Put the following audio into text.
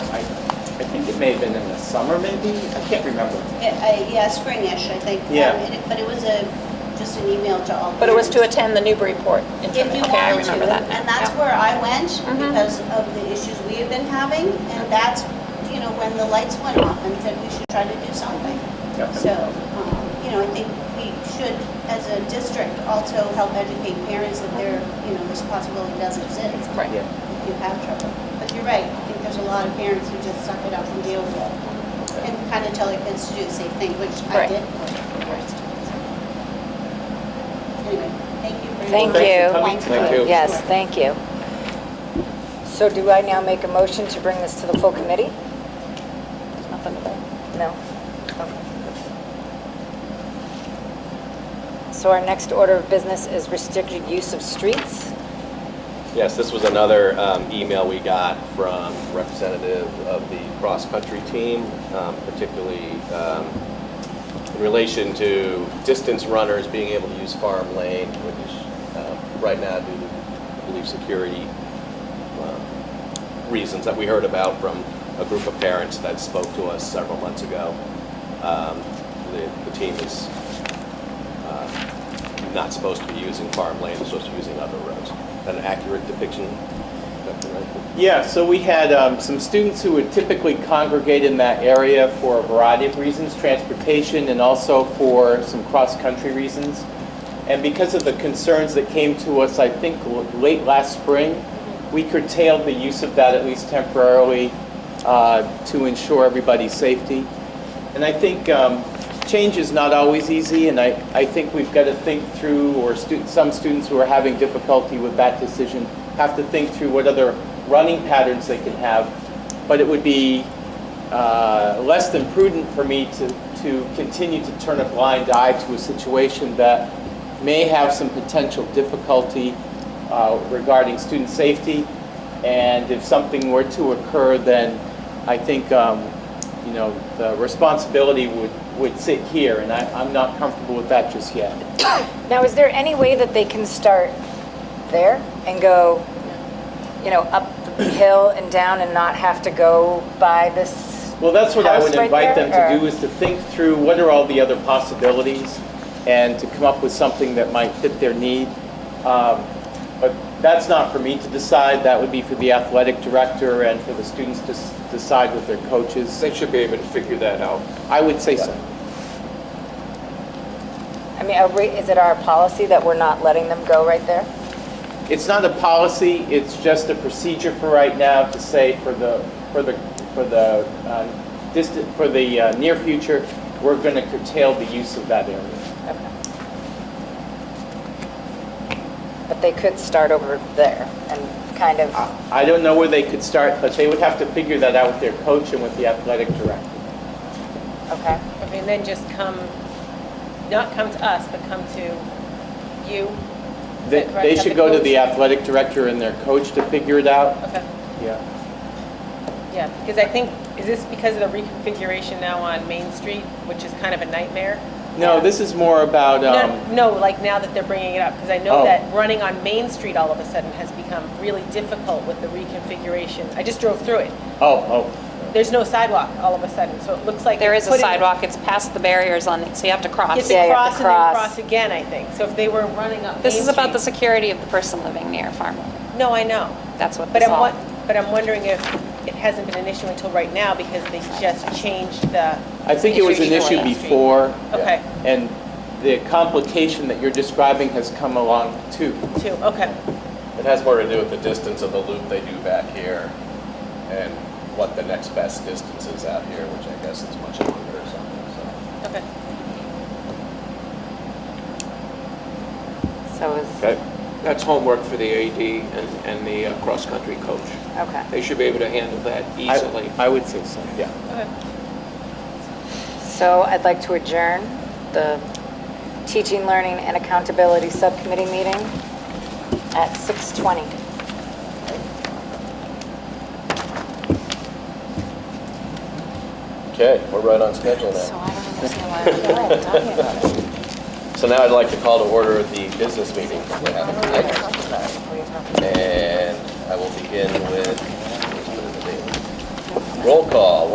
I think it may have been in the summer, maybe? I can't remember. Yeah, I- Uh, yeah, springish, I think. Um, Yeah. and it- But it was a, just an email to all. But it was to parents. attend the Newburyport. If you Okay, I wanted remember to, that. and that's Yeah. where I went Mhm. because of the issues we had been having. And that's, you know, when the lights went off and said we should try to do something. Definitely. So, um, you know, I think we should, as a district, also help educate parents that their, you know, this possibility does exist Right. Yeah. if you have trouble. But you're right, I think there's a lot of parents who just suck it up and deal with it. And kind of tell their kids to do the same thing, which I Right. did. for the worst. Anyway, thank you very much. Thank Thanks for you. coming Thank tonight. you. Yes, thank you. So do I now make a motion to bring this to the full committee? There's nothing to that. No? Okay. So our next order of business is restricted use of streets. Yes, this was another um, email we got from representative of the cross-country team, um, particularly um, in relation to distance runners being able to use farm lane, which is, uh, right now due to, I believe, security um, reasons that we heard about from a group of parents that spoke to us several months ago. Um, The the team is uh, not supposed to be using farm lane, they're supposed to be using other roads. An accurate depiction? Is that the right? Yeah, so we had um, some students who would typically congregate in that area for a variety of reasons, transportation and also for some cross-country reasons. And because of the concerns that came to us, I think, l- late last spring, we curtailed the use of that at least temporarily uh, to ensure everybody's safety. And I think um, change is not always easy, and I, I think we've got to think through, or stu- some students who are having difficulty with that decision have to think through what other running patterns they can have. But it would be uh, less than prudent for me to, to continue to turn a blind eye to a situation that may have some potential difficulty uh, regarding student safety. And if something were to occur, then I think, um, you know, the responsibility would, would sit here, and I, I'm not comfortable with that just yet. Now, is there any way that they can start there and go, you know, up the hill and down and not have to go by this? Well, that's what I would house right invite them there, to or- do, is to think through what are all the other possibilities, and to come up with something that might fit their need. Um, But that's not for me to decide, that would be for the athletic director and for the students to s- decide with their coaches. They should be able to figure that out. I would say so. I mean, are we- is it our policy that we're not letting them go right there? It's not a policy, it's just a procedure for right now to say for the, for the, for the uh, distant, for the uh, near future, we're going to curtail the use of that area. But they could start over there and kind of, I don't know where they could start, but they would have to figure that out with their coach and with the athletic director. okay, I mean, then just come, not come to us, but come to you. Is They that correct? they Have should go to coach? the athletic director and their coach to figure it out. Okay, Yeah. yeah, because I think, is this because of the reconfiguration now on Main Street, which is kind of a nightmare? No, this is more about, No, um, no, like now that they're bringing it up, because I Oh. know that running on Main Street all of a sudden has become really difficult with the reconfiguration. I just drove through it. oh, oh, There's no sidewalk all of a sudden, so it looks like. There they is a put it- sidewalk, it's past the barriers on, so you have to You have cross. to Yeah, you have cross to and then cross. cross again, I think. So if they were running up Main This is about the Street- security of the person living near Farmland. No, I know. That's what But this I'm, all. won- but I'm wondering if it hasn't been an issue until right now because they just changed the, I think it was an Issue issue before before. Okay. And the complication that you're describing has come along too. two, okay. It has more to do with the distance of the loop they do back here and what the next best distance is out here, which I guess is much longer or something, so. Okay. so is, That, that's homework for the AD and, and the uh, cross-country coach. okay. They should be able to handle that I- easily. I would say so. Yeah. So I'd like to adjourn the Teaching, Learning, and Accountability Subcommittee meeting at 6:20. Okay, we're right on schedule So now. I don't understand why we're why I'm talking about it. So now I'd like to call to order the business meeting that we're having What are you tonight. talking about? What are you talking about? And I will begin with, roll call,